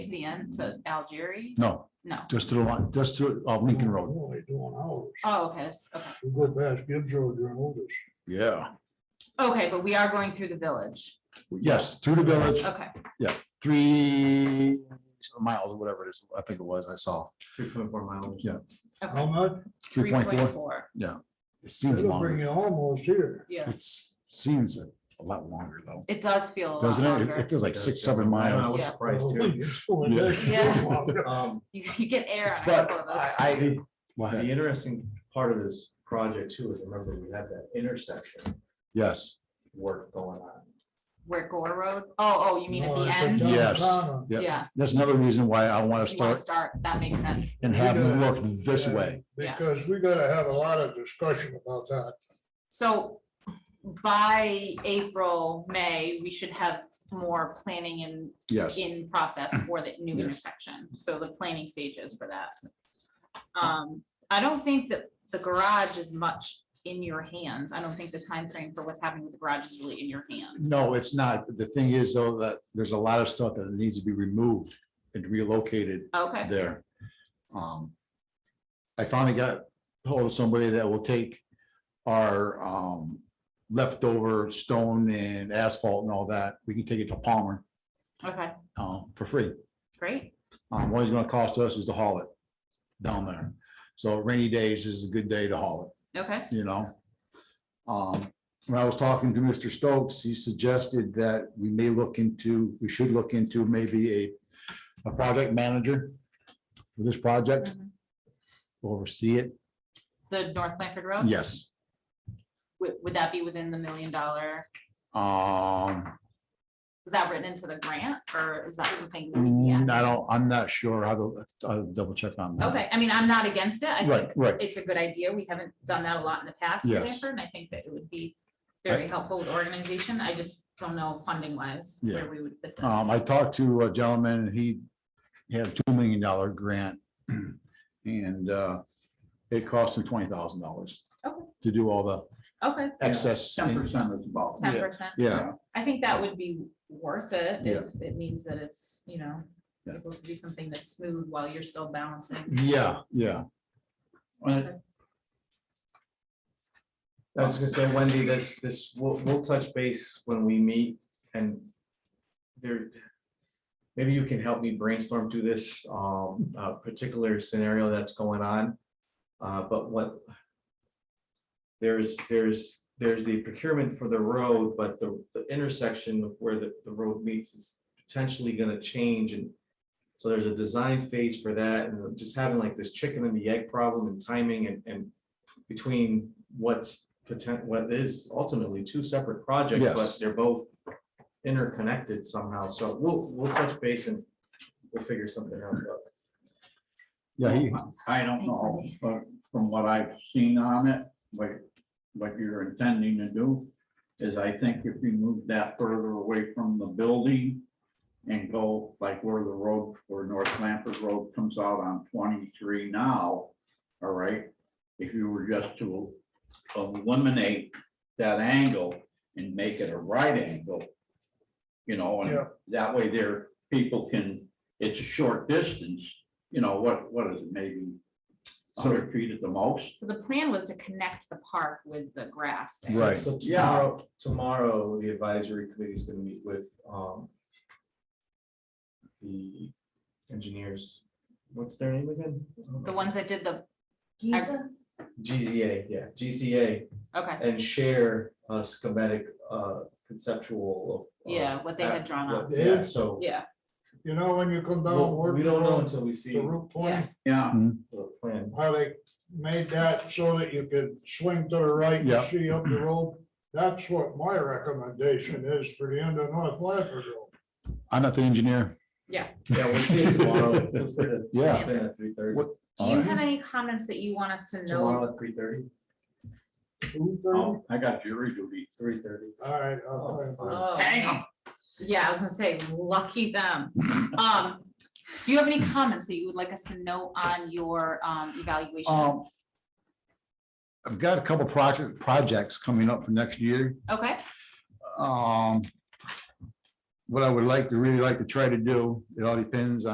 the end to Algeria? No, No. just to the line, just to uh, Lincoln Road. No, they do on ours. Oh, okay, that's- okay. You go past Gibbs Road, you're on Otis. Yeah. Okay, but we are going through the village. Yes, through the village, Okay, three miles, whatever it is, I think it was, I saw, Three point four miles. Yeah. How much? three point four. It seems It'll bring longer. you almost here. Yeah, It seems a a lot longer though, it does feel a lot doesn't it? It- longer. It feels like six, seven I miles. was Yeah. Oh, surprised too. Yeah. Um, You you get air on a But couple of I, those. I, go the ahead. interesting part of this project too is remember we had that intersection yes, work going on. Where Gore Road? Oh, oh, you mean at No, the it's a end? dump. yes, Downtown. yeah. Yeah. That's another reason why I want to You want to start, start that makes sense. and have them work this way. Yeah. Because we gotta have a lot of discussion about that. So by April, May, we should have more planning and Yes, in process for the new Yes. intersection, so the planning stages for that. Um, I don't think that the garage is much in your hands. I don't think the time frame for what's happening with the garage is really in your hands. no, it's not. The thing is though, that there's a lot of stuff that needs to be removed and relocated Okay, there. Um, I finally got hold of somebody that will take our, um, leftover stone and asphalt and all that. We can take it to Palmer, okay, um, for free. great. Um, what it's gonna cost us is to haul it down there. So rainy days is a good day to haul it Okay, you know? Um, when I was talking to Mr. Stokes, he suggested that we may look into, we should look into maybe a, a project manager for this project, Mhm. oversee it. the North Blanford Road? Yes, Would, would that be within the million dollar? um, Is that written into the grant or is that something? Yeah, mm, I don't, I'm not sure. I will, I'll double check on that. okay. I mean, I'm not against it. I think Right, right. it's a good idea. We haven't done that a lot in the past. with Yes. Blanford, And I think that it would be very helpful with organization. I just don't know funding wise. Yeah. where we would fit that. Um, I talked to a gentleman and he had a two million dollar grant and, uh, it cost him twenty thousand dollars Okay. to do all the Okay, excess. of the ball. ten Yeah. percent. Yeah, I think that would be worth it. Yeah. if It means that it's, you know, Yeah. able to be something that's smooth while you're still balancing. Yeah, yeah, I was gonna say, Wendy, this, this, we'll, we'll touch base when we meet and there, maybe you can help me brainstorm through this, um, uh, particular scenario that's going on. Uh, but what there's, there's, there's the procurement for the road, but the, the intersection of where the, the road meets is potentially gonna change and so there's a design phase for that and just having like this chicken and the egg problem and timing and, and between what's potent, what is ultimately two separate projects, but Yes. they're both interconnected somehow. So we'll, we'll touch base and we'll figure something out. but yeah, he- I don't Thanks, know, Wendy. but from what I've seen on it, what, what you're intending to do is I think if you move that further away from the building and go like where the road, where North Lampard Road comes out on twenty-three now, all right? If you were just to eliminate that angle and make it a right angle, you know, and Yeah. that way there, people can, it's a short distance, you know, what, what is it, maybe So, hundred feet at the most. So the plan was to connect the park with the grass. there. Right. so Yeah. tomorrow, tomorrow, the advisory committee is gonna meet with, um, the engineers, what's their name again? The ones that did the, GZA, yeah, GZA, okay, and share a schematic, uh, conceptual of. uh, yeah, what they had drawn what- up. Yeah, Oh. so. Yeah, You know, when you come down. we'll- We Wharton don't know Road until we To see Route Yeah. twenty, Yeah, the plan. how they made that so that you could swing to the right Yeah. and see up the road. That's what my recommendation is for the end of North Lampard Road. I'm not the engineer. Yeah, we'll see it tomorrow. Feel free to Yeah. stop in At three thirty, What- do you have any comments that you want us to know? tomorrow at three thirty, Two thirty? Oh. um, I got jury duty. three thirty. All right, I'll try. Oh, Hang on. Yeah, I was gonna say, lucky them. Um, do you have any comments that you would like us to know on your um evaluation? Um, I've got a couple project, projects coming up for next year. Okay, Um, what I would like to, really like to try to do, it all depends on.